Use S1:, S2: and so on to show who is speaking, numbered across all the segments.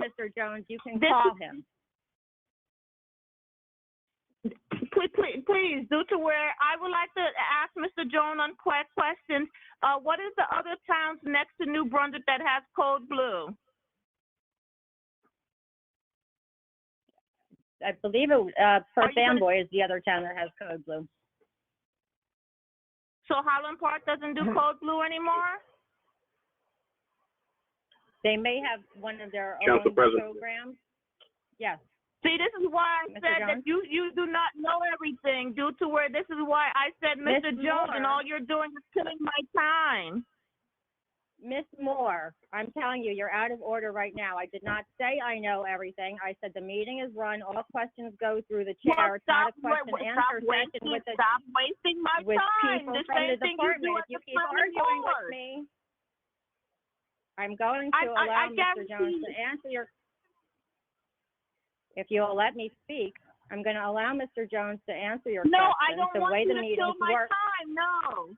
S1: Dr. Jones, you can
S2: This
S1: call him.
S2: Please, please, please, due to where I would like to ask Mr. Jones on que- questions. Uh, what is the other towns next to New Brunswick that has code blue?
S1: I believe it, uh,
S2: Are
S1: Perth
S2: you gonna-
S1: Amboy is the other town that has code blue.
S2: So Highland Park doesn't do
S1: Mm-hmm.
S2: code blue anymore?
S1: They may have one of their own
S3: Council President.
S1: programs. Yes,
S2: See, this is why I
S1: Mr.
S2: said that
S1: Jones?
S2: you, you do not know everything due to where, this is why I said,
S1: Ms.
S2: Mr. Jones, and
S1: Moore.
S2: all you're doing is killing my time.
S1: Miss Moore, I'm telling you, you're out of order right now. I did not say I know everything. I said the meeting is run, all questions go through the
S2: Well,
S1: chair. It's not a
S2: stop wa-
S1: question
S2: wa-
S1: and
S2: stop
S1: answer session
S2: wasting-
S1: with the,
S2: Stop wasting my
S1: with
S2: time.
S1: people
S2: The
S1: from the
S2: same thing you do
S1: department.
S2: at
S1: If you
S2: the
S1: keep
S2: Flemming
S1: arguing with
S2: Board.
S1: me, I'm going
S2: I-
S1: to
S2: I- I
S1: allow Mr. Jones to
S2: guarantee-
S1: answer your, if you'll let me speak, I'm going to allow Mr. Jones to answer your
S2: No, I
S1: questions.
S2: don't
S1: The
S2: want
S1: way
S2: you
S1: the
S2: to kill
S1: meetings
S2: my
S1: work,
S2: time, no.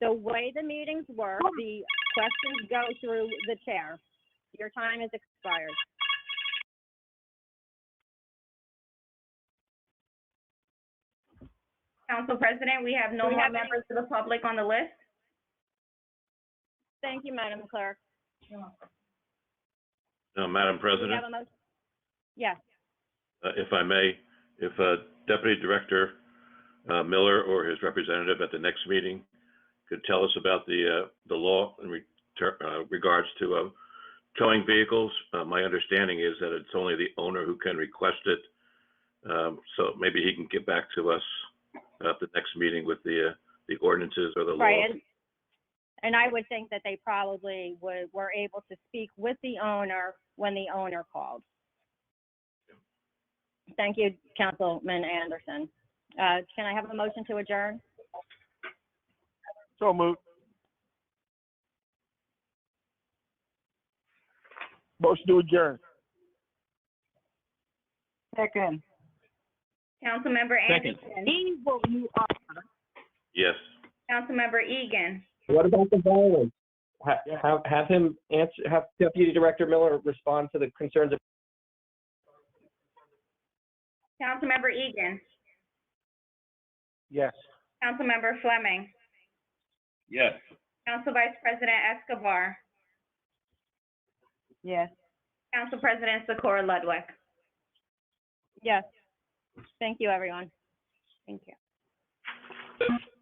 S1: the way the meetings work,
S4: Oh.
S1: the questions go through the chair. Your time is expired.
S4: Council President, we have no
S1: Do we
S4: more
S1: have any-
S4: members of the public on the list.
S1: Thank you, Madam Clerk.
S3: Now, Uh, Madam
S1: Do we
S3: President,
S1: have a motion? Yes,
S3: uh, if I may, if uh, Deputy Director uh, Miller or his representative at the next meeting could tell us about the, uh, the law in re- ter- uh, regards to uh, towing vehicles. Uh, My understanding is that it's only the owner who can request it. Um, So maybe he can get back to us at the next meeting with the, uh, the ordinances or the law.
S1: right, and, and I would think that they probably would, were able to speak with the owner when the owner called. Thank you, Councilman Anderson. Uh, can I have a motion to adjourn?
S5: So moved. Motion to adjourn.
S6: Second.
S4: Councilmember
S7: Second.
S4: Anderson.
S2: Evil you are.
S3: Yes.
S4: Councilmember Egan.
S8: What about the violence? Ha- Have, have him answer, have Deputy Director Miller respond to the concerns of
S4: Councilmember Egan.
S5: Yes.
S4: Councilmember Fleming.
S7: Yes.
S4: Council Vice President Escobar.
S6: Yes.
S4: Council President Socorro Ludwig.
S1: Yes. Thank you, everyone. Thank you.